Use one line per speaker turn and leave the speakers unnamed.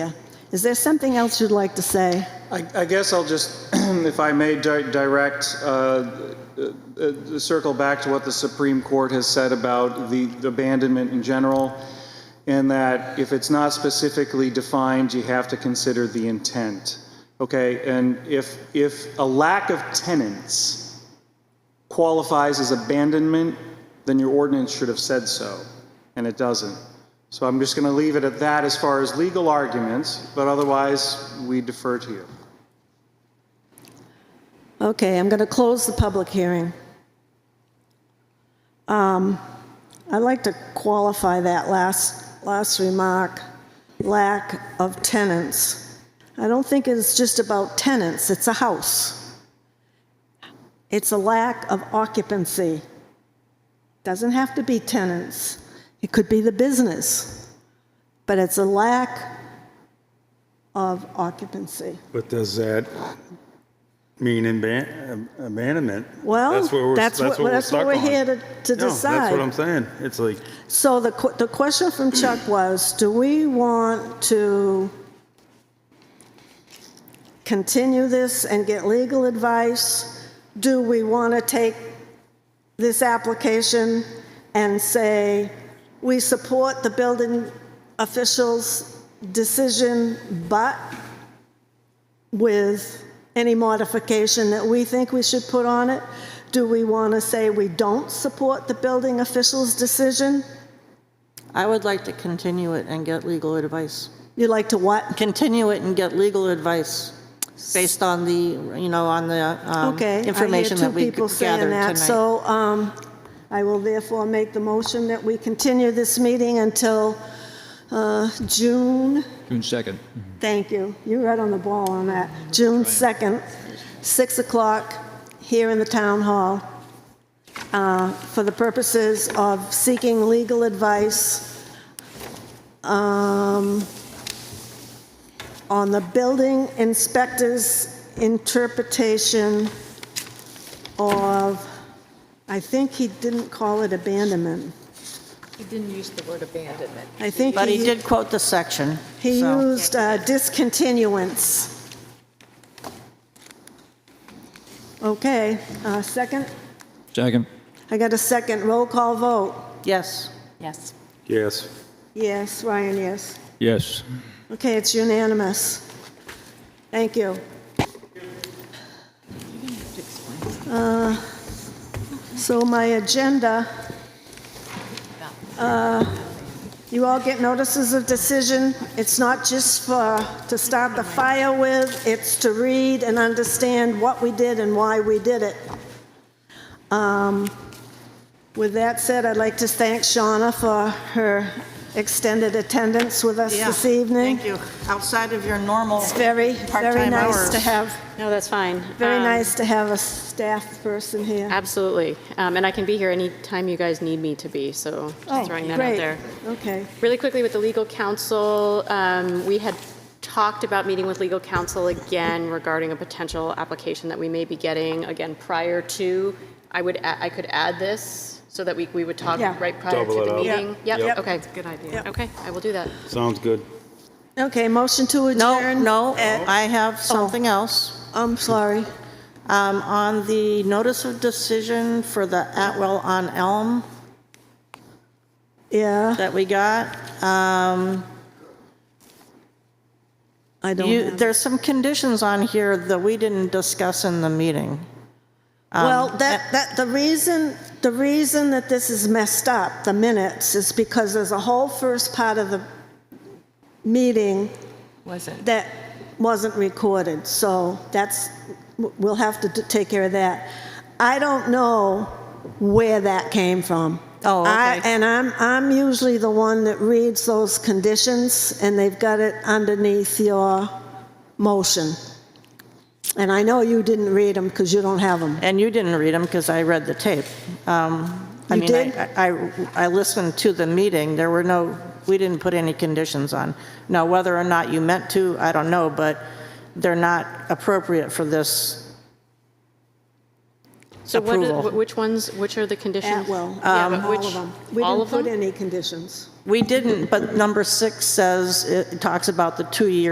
Yeah. Is there something else you'd like to say?
I, I guess I'll just, if I may, di- direct, uh, uh, uh, circle back to what the Supreme Court has said about the abandonment in general, and that if it's not specifically defined, you have to consider the intent. Okay, and if, if a lack of tenants qualifies as abandonment, then your ordinance should have said so, and it doesn't. So I'm just going to leave it at that as far as legal arguments, but otherwise, we defer to you.
Okay, I'm going to close the public hearing. Um, I'd like to qualify that last, last remark, lack of tenants. I don't think it's just about tenants, it's a house. It's a lack of occupancy. Doesn't have to be tenants. It could be the business, but it's a lack of occupancy.
But does that mean aban- abandonment?
Well,
That's what we're-
that's what-
we're
that's what
stuck
we're
on.
here to- to
No, That's
decide.
what I'm saying. It's like,
So the, que- the question from Chuck was, do we want to continue this and get legal advice? Do we want to take this application and say, we support the building official's decision, but with any modification that we think we should put on it? Do we want to say we don't support the building official's decision?
I would like to continue it and get legal advice.
You like to what?
Continue it and get legal advice based on the, you know, on the um,
Okay.
information that we
I hear two people
gathered
saying
tonight.
that, so um, I will therefore make the motion that we continue this meeting until uh, June,
June 2nd.
thank you, you're right on the ball on that, June 2nd, 6 o'clock, here in the Town Hall, uh, for the purposes of seeking legal advice um, on the building inspector's interpretation of, I think he didn't call it abandonment.
He didn't use the word abandonment.
I think
But he
he,
did quote the section,
he
so-
used uh, discontinuance. Okay, uh, second?
Second.
I got a second. Roll call vote.
Yes.
Yes.
yes,
Yes, Ryan, yes.
Yes.
Okay, it's unanimous. Thank you. Uh, So my agenda, uh, you all get notices of decision. It's not just for, to start the fire with, it's to read and understand what we did and why we did it. Um, With that said, I'd like to thank Shauna for her extended attendance with us
Yeah,
this evening.
Thank you. Outside of your normal
It's very, very
part-time
nice to
hours.
have,
No, that's fine.
very
Um,
nice to have a staff person here.
Absolutely. Um, And I can be here anytime you guys need me to be, so
Oh,
just throwing that
great.
out there.
Okay,
Really quickly with the legal counsel, um, we had talked about meeting with legal counsel again regarding a potential application that we may be getting, again, prior to, I would, a- I could add this so that we, we would talk
Yeah.
right prior
Double
to
it
the
up.
Yeah.
meeting.
Yep.
Yep, okay. Good idea. Okay, I will do that.
sounds good.
okay, motion to
No,
adjourn?
no,
at- Oh.
I have something else.
I'm sorry.
Um, On the notice of decision for the Atwell on Elm
Yeah,
that we got, um,
I don't
you,
have.
there's some conditions on here that we didn't discuss in the meeting. Um,
Well,
uh,
that, that, the reason, the reason that this is messed up, the minutes, is because there's a whole first part of the meeting
Wasn't.
that wasn't recorded, so that's, we'll have to d- take care of that. I don't know where that came from.
Oh, okay.
I- And I'm, I'm usually the one that reads those conditions, and they've got it underneath your motion. And I know you didn't read them, because you don't have them.
And you didn't read them because I read the tape. Um, I
You
mean,
did?
I- I I listened to the meeting. There were no, we didn't put any conditions on. Now, whether or not you meant to, I don't know, but they're not appropriate for this.
So what,
Approval.
are- wh- which ones, which are the conditions?
Atwell,
Yeah,
um, all
but which-
of them. We
All
didn't
of them?
put any conditions.
We didn't, but number six says, it talks about the two-year